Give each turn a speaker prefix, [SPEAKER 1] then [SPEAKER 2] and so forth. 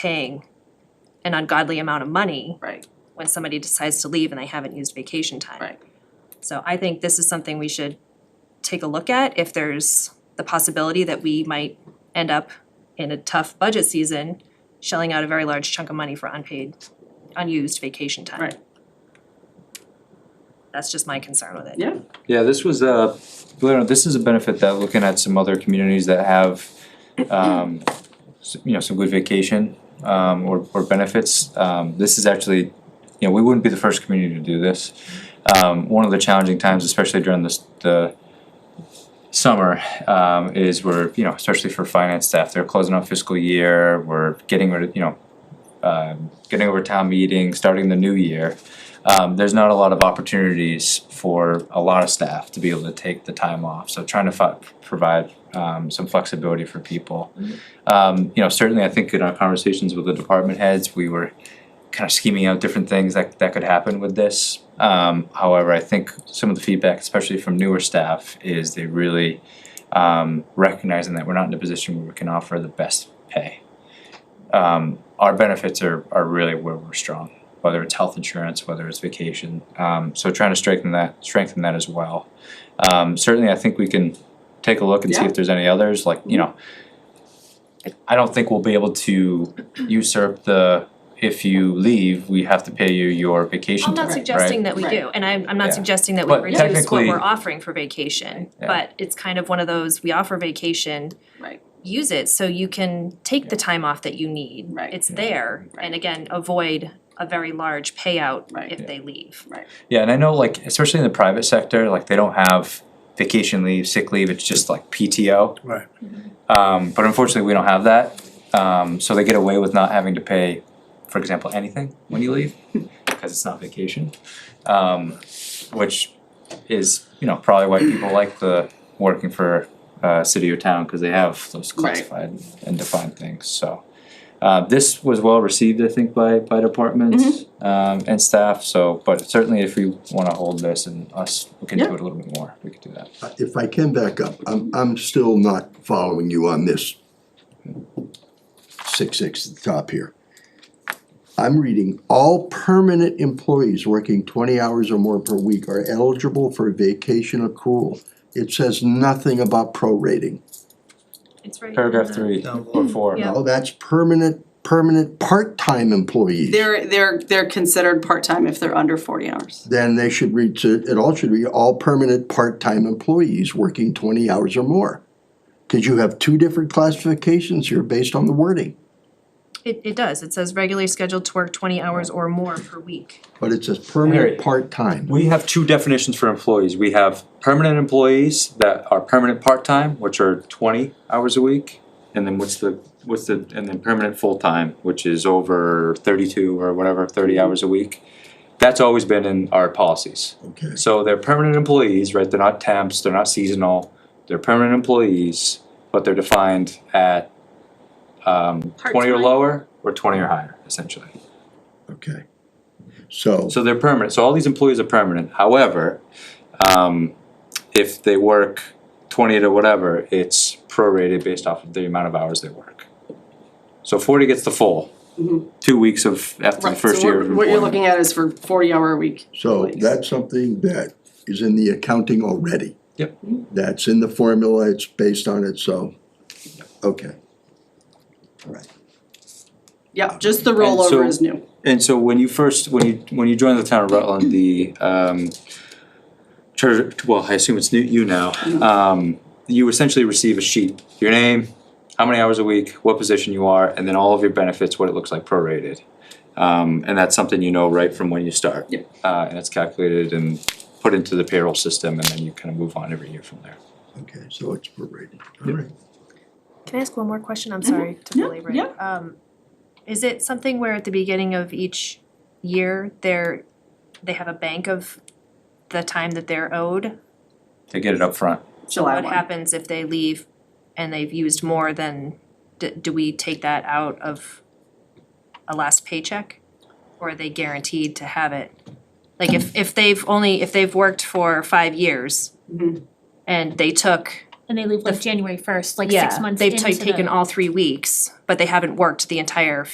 [SPEAKER 1] paying an ungodly amount of money
[SPEAKER 2] right,
[SPEAKER 1] when somebody decides to leave and they haven't used vacation time.
[SPEAKER 2] right.
[SPEAKER 1] So I think this is something we should take a look at if there's the possibility that we might end up in a tough budget season shelling out a very large chunk of money for unpaid, unused vacation time.
[SPEAKER 2] Right.
[SPEAKER 1] That's just my concern with it.
[SPEAKER 2] Yeah,
[SPEAKER 3] Yeah, this was a, believe it or not, this is a benefit that looking at some other communities that have, um, s- you know, some good vacation, um, or, or benefits, um, this is actually, you know, we wouldn't be the first community to do this. Um, one of the challenging times, especially during this, the summer, um, is where, you know, especially for finance staff, they're closing out fiscal year, we're getting rid of, you know, um, getting over town meeting, starting the new year um, there's not a lot of opportunities for a lot of staff to be able to take the time off. So trying to fi- provide um, some flexibility for people. Um, you know, certainly I think in our conversations with the department heads, we were kind of scheming out different things that, that could happen with this. Um, however, I think some of the feedback, especially from newer staff, is they really um, recognizing that we're not in a position where we can offer the best pay. Um, our benefits are, are really where we're strong whether it's health insurance, whether it's vacation. Um, so trying to strengthen that, strengthen that as well. Um, certainly, I think we can take a look and see
[SPEAKER 2] Yeah.
[SPEAKER 3] if there's any others. Like you know, I don't think we'll be able to usurp the if you leave, we have to pay you your vacation
[SPEAKER 1] I'm
[SPEAKER 3] time.
[SPEAKER 1] not
[SPEAKER 2] Right.
[SPEAKER 1] suggesting that we
[SPEAKER 2] Right.
[SPEAKER 1] do, and I'm, I'm
[SPEAKER 3] Yeah.
[SPEAKER 1] not suggesting that we
[SPEAKER 3] But
[SPEAKER 1] reduce what
[SPEAKER 3] technically-
[SPEAKER 1] we're offering for vacation,
[SPEAKER 3] Yeah.
[SPEAKER 1] but it's kind of one of those, we offer vacation.
[SPEAKER 2] Right.
[SPEAKER 1] Use it so you can take the time off that you need.
[SPEAKER 2] Right.
[SPEAKER 1] It's
[SPEAKER 3] Yeah.
[SPEAKER 1] there,
[SPEAKER 2] Right.
[SPEAKER 1] and again, avoid a very large payout
[SPEAKER 2] Right.
[SPEAKER 1] if
[SPEAKER 3] Yeah.
[SPEAKER 1] they leave.
[SPEAKER 3] Yeah, and I know like especially in the private sector, like they don't have vacation leave, sick leave, it's just like PTO.
[SPEAKER 4] Right.
[SPEAKER 3] Um, but unfortunately, we don't have that. Um, so they get away with not having to pay, for example, anything when you leave because it's not vacation, um, which is you know probably why people like the working for uh, city or town because they have those
[SPEAKER 2] Right.
[SPEAKER 3] classified and defined things. So uh, this was well received, I think, by by departments um, and staff. So, but certainly if we want to hold this and us look into
[SPEAKER 2] Yeah.
[SPEAKER 3] it a little bit more, we could do that.
[SPEAKER 4] If I can back up, I'm, I'm still not following you on this. Six, six at the top here. I'm reading, all permanent employees working twenty hours or more per week are eligible for vacation accrual. It says nothing about prorating.
[SPEAKER 1] It's right.
[SPEAKER 3] Paragraph three or four.
[SPEAKER 1] Yeah.
[SPEAKER 4] Oh, that's permanent, permanent part-time employees.
[SPEAKER 2] they're, they're, they're considered part-time if they're under forty hours.
[SPEAKER 4] Then they should read to, it all should read, all permanent part-time employees working twenty hours or more. Cause you have two different classifications here based on the wording.
[SPEAKER 1] It, it does, it says regularly scheduled to work twenty hours or more per week.
[SPEAKER 4] But it says
[SPEAKER 3] Harry.
[SPEAKER 4] permanent part-time.
[SPEAKER 3] We have two definitions for employees. We have permanent employees that are permanent part-time, which are twenty hours a week. And then what's the, what's the, and then permanent full-time, which is over thirty-two or whatever, thirty hours a week. That's always been in our policies.
[SPEAKER 4] Okay.
[SPEAKER 3] So they're permanent employees, right? They're not temps, they're not seasonal, they're permanent employees, but they're defined at um twenty or
[SPEAKER 1] Part-time.
[SPEAKER 3] lower or twenty or higher, essentially.
[SPEAKER 4] Okay. So,
[SPEAKER 3] So they're permanent, so all these employees are permanent, however, um if they work twenty to whatever, it's prorated based off of the amount of hours they work. So forty gets the full, two weeks of
[SPEAKER 2] Mm-hmm.
[SPEAKER 3] after the
[SPEAKER 2] Right, so
[SPEAKER 3] first year of
[SPEAKER 2] what, what you're
[SPEAKER 3] employment.
[SPEAKER 2] looking at is for forty-hour a week.
[SPEAKER 4] so
[SPEAKER 2] employees.
[SPEAKER 4] that's something that is in the accounting already.
[SPEAKER 3] Yep.
[SPEAKER 4] That's in the formula, it's based on it, so, okay. All right.
[SPEAKER 2] Yeah, just the
[SPEAKER 3] And so-
[SPEAKER 2] rollover is new.
[SPEAKER 3] And so when you first, when you, when you joined the town of Rutland, the um treasure, well, I assume it's new, you now, um you essentially receive a sheet, your name, how many hours a week, what position you are, and then all of your benefits, what it looks like prorated. Um and that's something you know right from when you start.
[SPEAKER 2] Yep.
[SPEAKER 3] Uh and it's calculated and put into the payroll system and then you kind of move on every year from there.
[SPEAKER 4] Okay, so it's prorated, all right.
[SPEAKER 1] Can I ask one more question, I'm sorry to
[SPEAKER 2] Mm-hmm. Yeah,
[SPEAKER 1] belabor it.
[SPEAKER 2] yeah.
[SPEAKER 1] Um, is it something where at the beginning of each year, they're, they have a bank of the time that they're owed?
[SPEAKER 3] They get it up front.
[SPEAKER 1] So
[SPEAKER 2] July
[SPEAKER 1] what
[SPEAKER 2] one.
[SPEAKER 1] happens if they leave and they've used more than, do, do we take that out of a last paycheck? Or are they guaranteed to have it? Like if, if they've only, if they've worked for five years
[SPEAKER 2] Mhm.
[SPEAKER 1] and they took,
[SPEAKER 5] And they leave like January first, like
[SPEAKER 1] yeah,
[SPEAKER 5] six months
[SPEAKER 1] they've
[SPEAKER 5] into
[SPEAKER 1] ta-
[SPEAKER 5] the.
[SPEAKER 1] taken all three weeks, but they haven't worked the entire